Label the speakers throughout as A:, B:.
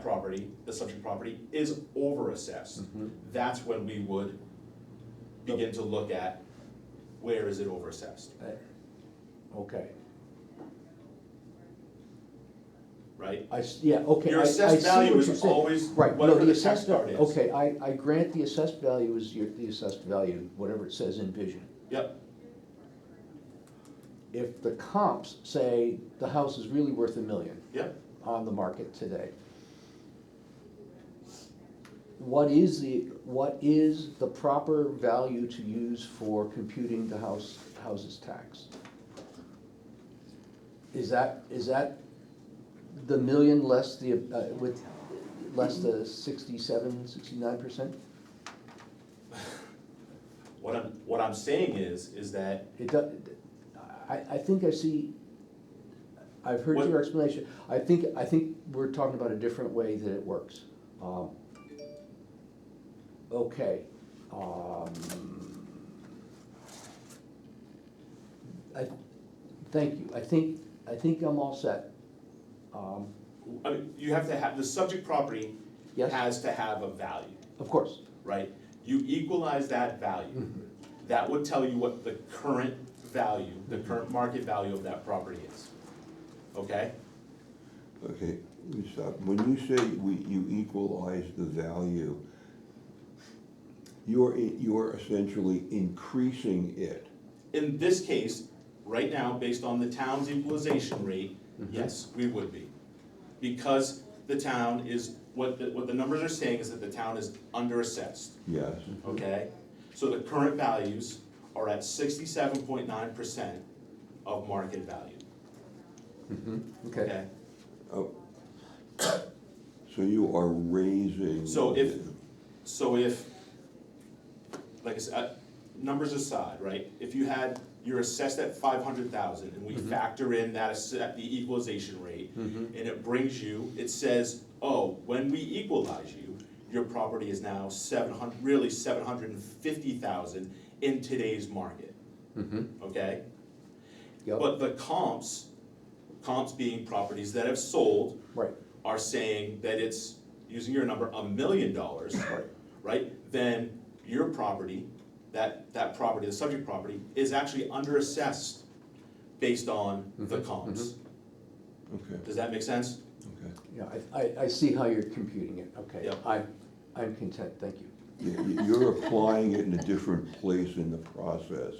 A: property, the subject property is over assessed, that's when we would begin to look at where is it over assessed,
B: Eh, Okay,
A: right?
B: I, s- yeah, okay.
A: Your
B: I- I
A: assessed
B: see
A: value
B: what
A: is
B: you're saying.
A: always
B: Right, no,
A: whatever the
B: assessed
A: tax card is.
B: Okay, I, I grant the assessed value is your, the assessed value, whatever it says in vision.
A: Yep,
B: If the comps say the house is really worth a million
A: yep,
B: on the market today, what is the, what is the proper value to use for computing the house, houses tax? Is that, is that the million less the, uh, with, less the sixty-seven, sixty-nine percent?
A: what I'm, what I'm saying is, is that
B: It does, I, I think I see, I've heard
A: What-
B: your explanation, I think, I think we're talking about a different way that it works. Um, Okay, um. I, thank you, I think, I think I'm all set. Um,
A: I mean, you have to have, the subject property
B: Yes.
A: has to have a value,
B: Of course,
A: right? You equalize that value, that would tell you what the current value, the current market value of that property is. Okay?
C: Okay, let me stop. When you say we, you equalize the value, you're, i- you're essentially increasing it.
A: In this case, right now, based on the town's equalization rate, yes, we would be. Because the town is, what the, what the numbers are saying is that the town is under assessed.
C: Yes,
A: okay? So the current values are at sixty-seven point nine percent of market value,
B: okay,
A: okay?
C: Oh. so you are raising.
A: So if, so if, like I said, uh, numbers aside, right? If you had, you're assessed at five hundred thousand, and we factor in that, asse- the equalization rate, and it brings you, it says, oh, when we equalize you, your property is now seven hundred really seven hundred and fifty thousand in today's market. Okay?
B: Mm-hmm. yep,
A: But the comps, comps being properties that have sold,
B: right,
A: are saying that it's, using your number, a million dollars, right? Then your property, that, that property, the subject property, is actually under assessed based on the
C: Mm-hmm.
A: comps.
C: Okay,
A: Does that make sense?
C: okay.
B: yeah, I, I, I see how you're computing it, okay,
A: Yep.
B: I, I'm content, thank you.
C: Y- y- You're applying it in a different place in the process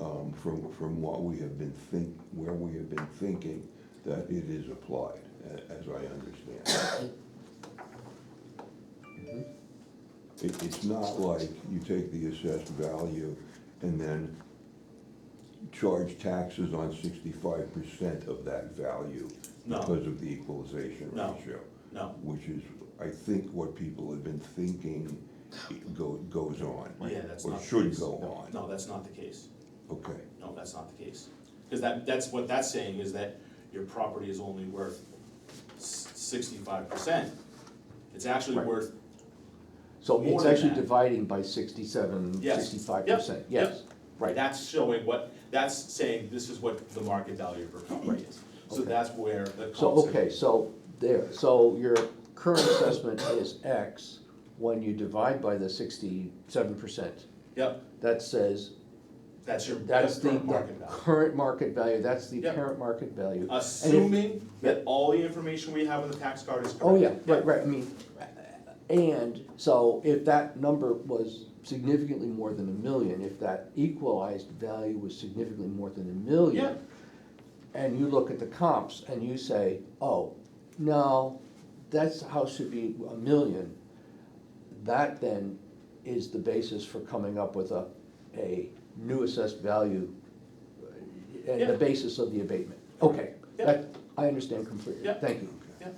C: um, from, from what we have been think, where we have been thinking that it is applied, a- as I understand.
A: Mm-hmm.
C: it. It, it's not like you take the assessed value and then charge taxes on sixty-five percent of that value
A: No.
C: because of the equalization
A: No.
C: ratio
A: No,
C: which is, I think, what people have been thinking it go, goes on.
A: Yeah, that's not
C: Or
A: the
C: should
A: case.
C: go
B: No,
C: on.
A: no, that's not the case.
C: Okay,
A: No, that's not the case. Because that, that's what that's saying is that your property is only worth sixty-five percent. It's actually
B: Right.
A: worth
B: So
A: More
B: it's
A: than
B: actually
A: that.
B: dividing by sixty-seven,
A: Yes.
B: sixty-five
A: Yep.
B: percent,
A: Yep.
B: yes, right.
A: That's showing what, that's saying this is what the market value of a property is. So
B: Okay.
A: that's where the.
B: So,
A: comps-
B: okay, so there, so your current assessment is X, when you divide by the sixty-seven percent,
A: Yep,
B: that says,
A: that's your, that's
B: that's the
A: current
B: the
A: market value.
B: current market value, that's the
A: Yep.
B: parent market value. And if-
A: Assuming that all the information we have in the tax card is correct.
B: Oh, yeah, right, right, I mean, and, so if that number was significantly more than a million, if that equalized value was significantly more than a
A: Yeah.
B: million, and you look at the comps and you say, oh, no, that's, house should be a million, that then is the basis for coming up with a, a new assessed value uh, and
A: Yeah.
B: the basis of the abatement. Okay,
A: Yeah.
B: that, I understand completely,
A: Yeah.
B: thank you.
A: Yeah,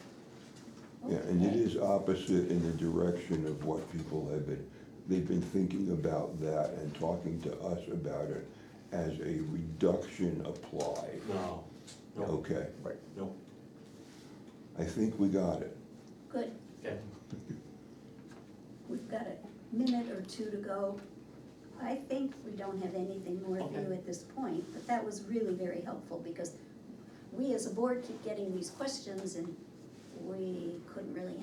C: yeah, and it is opposite in the direction of what people have been, they've been thinking about that and talking to us about it as a reduction applied.
A: no, no,
C: Okay,
B: Right.
A: no,
C: I think we got it.
D: Good,
A: okay.
D: we've got a minute or two to go. I think we don't have anything more for you
A: Okay.
D: at this point, but that was really very helpful because we as a board keep getting these questions and we couldn't really